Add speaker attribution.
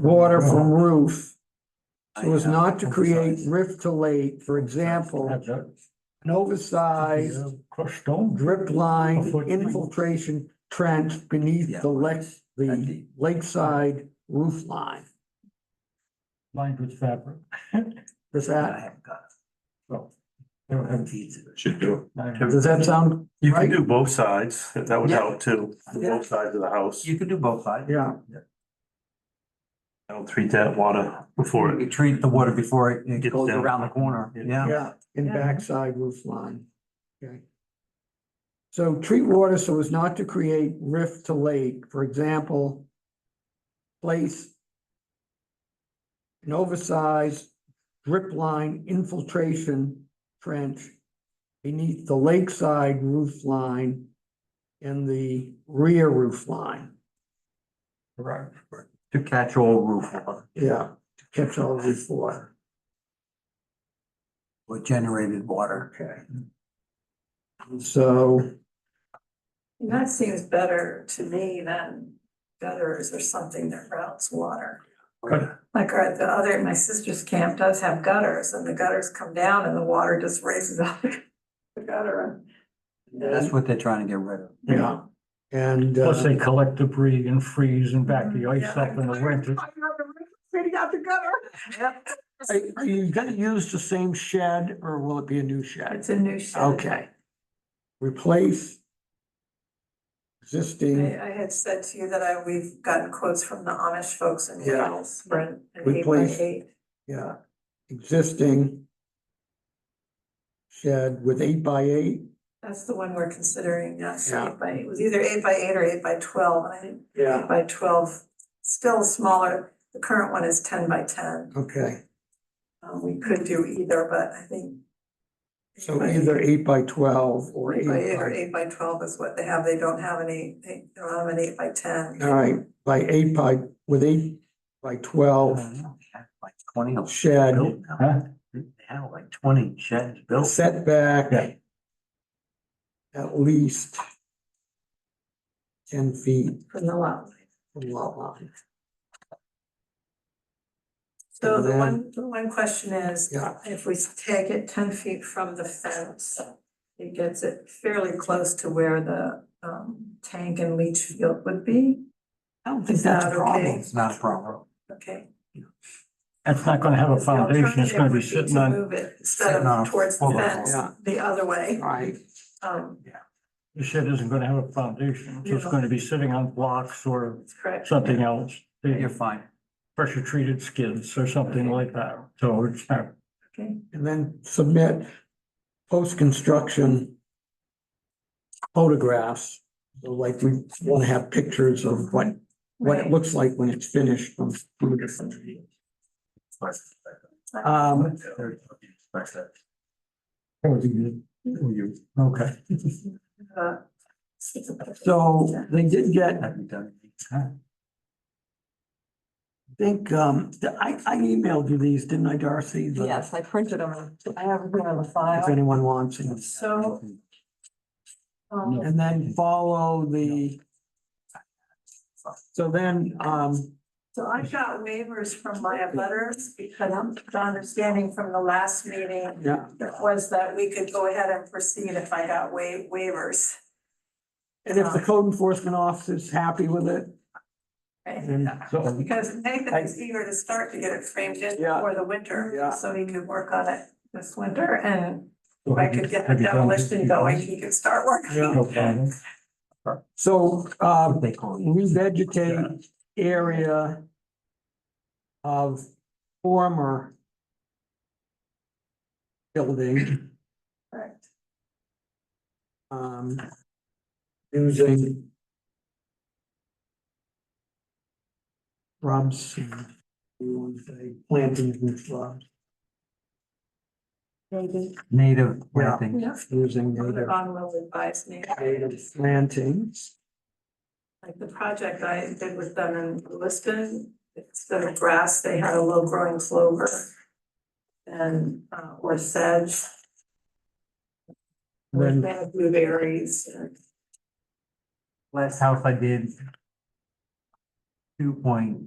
Speaker 1: water from roof so as
Speaker 2: was
Speaker 1: not to create rift to lake, for example, an oversized
Speaker 2: Crushed stone.
Speaker 1: drip line infiltration trench beneath the lake, the lakeside roof line.
Speaker 2: Lined with fabric.
Speaker 1: Does that,
Speaker 3: Should do.
Speaker 1: does that sound,
Speaker 4: You
Speaker 1: Right.
Speaker 4: can do both sides, if that would
Speaker 1: Yeah.
Speaker 4: help too, both sides of the house.
Speaker 3: You can do both sides.
Speaker 1: yeah,
Speaker 4: I don't treat that water before
Speaker 3: You
Speaker 4: it.
Speaker 3: treat the water before it- it
Speaker 4: Gets
Speaker 3: goes
Speaker 4: down.
Speaker 3: around the corner, yeah.
Speaker 1: yeah, in backside roof line. Okay. So treat water so as not to create rift to lake, for example, place an oversized drip line infiltration trench beneath the lakeside roof line and the rear roof line.
Speaker 3: Right. To catch all roof water
Speaker 1: Yeah, to catch all roof water.
Speaker 3: or generated water.
Speaker 1: Okay. So.
Speaker 5: That seems better to me than gutters or something that routes water.
Speaker 4: Good.
Speaker 5: Like our, the other, my sister's camp does have gutters and the gutters come down and the water just raises up the gutter. and-
Speaker 3: That's what they're trying to get rid of.
Speaker 1: Yeah, and. uh,
Speaker 2: Plus they collect debris and freeze and back the ice
Speaker 5: Yeah.
Speaker 2: up in the winter.
Speaker 5: I know the roof Fitting out the gutter.
Speaker 1: Are are you gonna use the same shed or will it be a new shed?
Speaker 5: It's a new shed.
Speaker 1: Okay. Replace
Speaker 5: I,
Speaker 1: existing,
Speaker 5: I had said to you that I, we've gotten quotes from the Amish folks in
Speaker 1: Yeah.
Speaker 5: Wales, Brent, and
Speaker 1: Good
Speaker 5: eight by
Speaker 1: place.
Speaker 5: eight.
Speaker 1: yeah, existing shed with eight by eight.
Speaker 5: That's the one we're considering, yes,
Speaker 1: Yeah.
Speaker 5: eight by, it was either eight by eight or eight by twelve, and I think eight uh, by twelve, still smaller. The current one is ten by ten,
Speaker 1: Okay,
Speaker 5: um, we could do either, but I think.
Speaker 1: so either eight by twelve or
Speaker 5: Eight by eight or
Speaker 1: eight
Speaker 5: eight by twelve is what they have, they don't have any, they don't have an eight by ten.
Speaker 1: by, all right, by eight by, with eight by twelve
Speaker 3: Like twenty of them
Speaker 1: Oh. shed
Speaker 3: built now.
Speaker 2: Huh?
Speaker 3: They have like twenty sheds built.
Speaker 1: setback
Speaker 2: Yeah.
Speaker 1: at least ten feet
Speaker 5: From the lot.
Speaker 1: from lot line.
Speaker 5: So the
Speaker 1: And
Speaker 5: one, the one question is,
Speaker 1: Yeah,
Speaker 5: If we take it ten feet from the fence, it gets it fairly close to where the um tank and leach field would be.
Speaker 3: I don't
Speaker 5: think that's a problem.
Speaker 3: It's not a problem.
Speaker 5: Okay.
Speaker 2: That's not gonna have a
Speaker 5: The
Speaker 2: foundation. It's gonna be
Speaker 5: alternative would
Speaker 2: sitting
Speaker 5: to
Speaker 2: on,
Speaker 5: Move it instead
Speaker 3: Sitting on
Speaker 5: of
Speaker 3: a
Speaker 5: towards the
Speaker 3: fuller
Speaker 5: fence,
Speaker 1: wall.
Speaker 5: the other way.
Speaker 1: right,
Speaker 5: Um,
Speaker 2: the shed isn't gonna have a foundation. So it's
Speaker 5: Yeah.
Speaker 2: gonna be sitting on blocks or
Speaker 5: that's correct.
Speaker 2: something else.
Speaker 3: You're fine.
Speaker 2: Pressure treated skids or something like that. So it's not.
Speaker 5: Okay,
Speaker 1: and then submit post-construction photographs. So like we wanna have pictures of what, what it
Speaker 5: Right.
Speaker 1: looks like when it's finished from two different views. Um,
Speaker 2: Okay.
Speaker 5: uh,
Speaker 1: so they did get, I
Speaker 3: Have you done?
Speaker 1: think, um, I, I emailed you these, didn't I, Darcy? The-
Speaker 5: Yes, I printed them. I have them on the
Speaker 1: If
Speaker 5: file.
Speaker 1: anyone wants them.
Speaker 5: So, um,
Speaker 1: And then follow the. So then, um,
Speaker 5: So I got waivers from my letters because the understanding from the last meeting
Speaker 1: yeah,
Speaker 5: was that we could go ahead and proceed if I got wa- waivers.
Speaker 1: and if the code enforcement officer's happy with it,
Speaker 5: right?
Speaker 1: then
Speaker 2: So
Speaker 5: Because Nathan is eager to start to get it framed in
Speaker 1: Yeah.
Speaker 5: for the winter.
Speaker 1: Yeah.
Speaker 5: So he could work on it this winter and if I
Speaker 2: Have you-
Speaker 5: could get the
Speaker 2: have you done
Speaker 5: demolition
Speaker 2: this
Speaker 5: going,
Speaker 2: before?
Speaker 5: he could start working.
Speaker 2: No problem.
Speaker 1: So, uh,
Speaker 3: What they call it.
Speaker 1: revegetate area of former building,
Speaker 5: Correct.
Speaker 1: um, using shrubs, and you want to say plantings and shrubs,
Speaker 3: Native
Speaker 1: Yeah.
Speaker 3: planting.
Speaker 5: Yeah.
Speaker 1: using native,
Speaker 5: Ron will advise me.
Speaker 1: native plantings.
Speaker 5: Like the project I did with them in Lisbon, instead of grass, they had a low growing clover. And, uh, or sedge. Or
Speaker 1: Then-
Speaker 5: they had blueberries and
Speaker 3: Last house I did. Two point